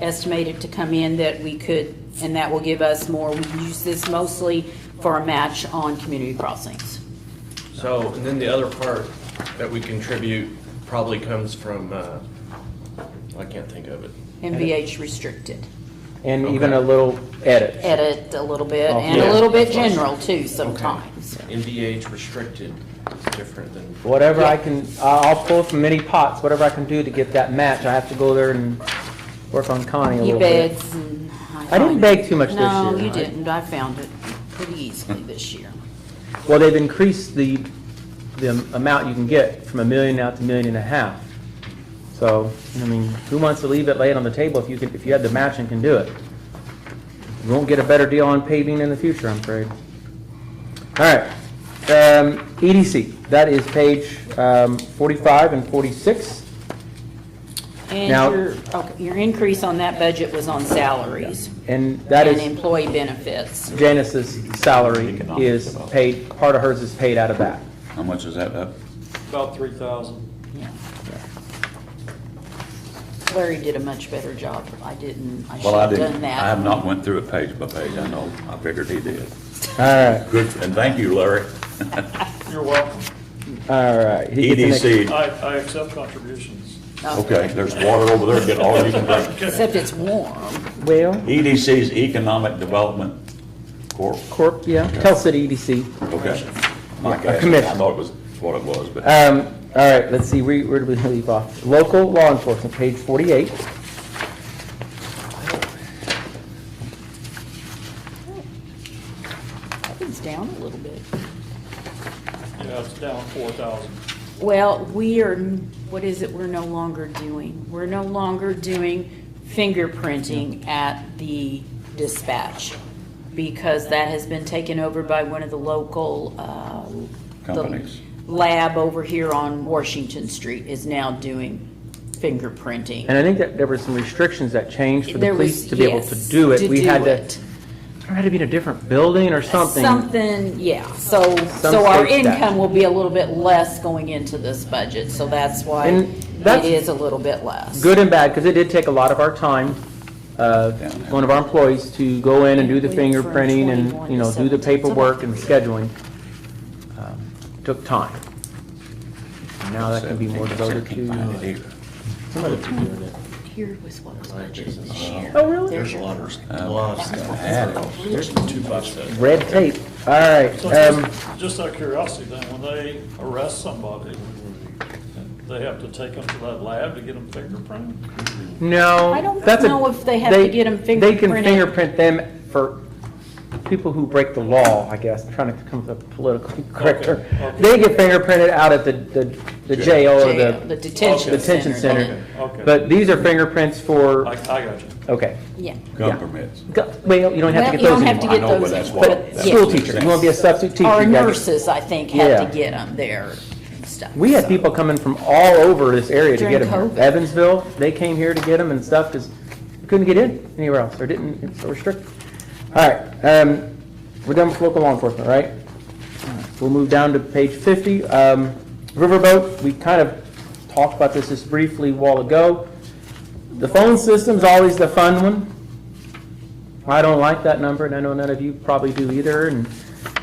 estimated to come in that we could, and that will give us more. We use this mostly for a match on community crossings. So, and then the other part that we contribute probably comes from, uh, I can't think of it. MVH restricted. And even a Okay. little edit. Edit a little bit, Oh, and a yeah. little bit general too sometimes. NVH restricted is different than, Whatever I can, I- I'll pull from many pots, whatever I can do to get that match. I have to go there and work on Connie a He little bit. begs and. I didn't beg too much this No, year, you I- didn't. I found it pretty easily this year. Well, they've increased the, the amount you can get from a million now to a million and a half. So, I mean, who wants to leave it, lay it on the table if you can, if you had the match and can do it? You won't get a better deal on paving in the future, I'm afraid. All right, um, EDC, that is page, um, forty-five and forty-six. And Now- your, okay, your increase on that budget was on salaries And that and is employee benefits. Janice's salary Economic is development. paid, part of hers is paid out of that. How much is that up? About three thousand. Yeah. Larry did a much better job. I didn't, I should Well, I have didn't, done I have that. not went through it page by page, I know, I figured he did. All right, Good, and thank you, Larry. You're welcome. all right. He gets the next- EDC, I, I accept contributions. No, E okay, there's water over there, get all you can drink. Uh, Except it's warm. Well, EDC's Economic Development Corp, Corp, yeah, Tell City E EDC. okay. My gosh, I commission. thought it was what it was, but. Um, all right, let's see, where, where do we leave off? Local law enforcement, page forty-eight. That one's down a little bit. Yeah, it's down four thousand. Well, we are, what is it we're no longer doing? We're no longer doing fingerprinting at the dispatch because that has been taken over by one of the local, uh. the Companies. Lab over here on Washington Street is now doing fingerprinting. And I think that there were some restrictions that changed for the There was- police to be able to yes, do it. to We do had it. to, there had to be in a different building or something. Something, yeah, so, so our states that. income will be a little bit less going into this budget, so that's why And it that's- is a little bit less. Good and bad, because it did take a lot of our time, uh, Yeah. one of our employees to go in and do the We went from fingerprinting 21 and, you know, to do 17. the It's about paperwork and three. scheduling. Um, Took time. And Now that can be more devoted to. uh, somebody be doing it. Here was what was budgeted this year. Oh, really? There's a lot of, Uh, a lot of stuff. There's two bucks there. Red tape, all right. So um, just, just out of curiosity then, when they arrest somebody, they have to take them to that lab to get them fingerprinted? No. I don't that's a- know if they have to get 'em They can fingerprinted. fingerprint them for people who break the law, I guess, I'm trying to come up with a politically correct term. Okay, okay. They get fingerprinted out at the, the the jail or Jail, the Oh, the detention detention center. center. Okay. But these are fingerprints I, I for, got you. okay. Yeah. Gun permits. Go- Well, you don't have to Well, get you don't those have to get anymore. I know, those in, but that's but what. it- that's School what he was teacher, saying. you want to be a substitute teacher. Our you gotta get- nurses, I think, had Yeah. to get them there and stuff. We had so. people coming from all over this area to get During them. COVID. Evansville, they came here to get them and stuff because couldn't get in anywhere else or didn't, it's so restricted. All right, um, we're done with local law enforcement, right? We'll move down to page 50. Um, Riverboat, we kind of talked about this just briefly a while ago. The phone system's always the fun one. I don't like that number and I know none of you probably do either. And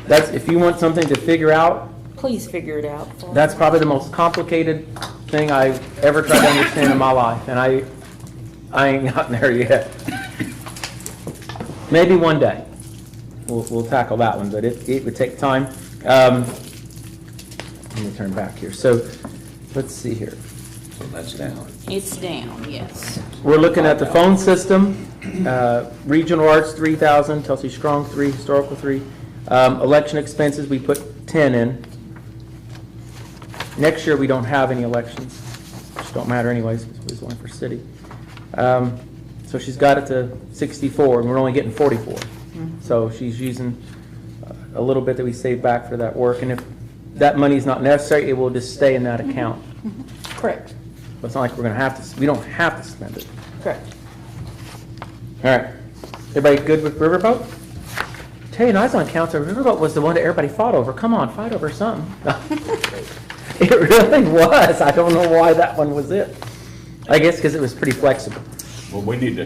that's, if you want something to figure out, Please figure it out. for us. that's probably the most complicated thing I've ever tried to understand in my life, and I, I ain't gotten there yet. Maybe one day, we'll, we'll tackle that one, but it, it would take time. Um, Let me turn back here, so, let's see here. So that's down. It's down, yes. We're looking at the phone system, uh, regional arts, 3,000, Telsey Strong, 3, historical, 3. Um, Election expenses, we put 10 in. Next year, we don't have any elections, which don't matter anyways, because we was one for city. Um, So she's got it to 64, and we're only getting 44. So she's using uh, a little bit that we save back for that work, and if that money's not necessary, it will just stay in that account. Correct, It's not like we're gonna have to, we don't have to spend it. correct. All right. Everybody good with Riverboat? Tell you, when I was on council, Riverboat was the one that everybody fought over. Come on, fight over something. It really was. I don't know why that one was it. I guess because it was pretty flexible. Well, we need to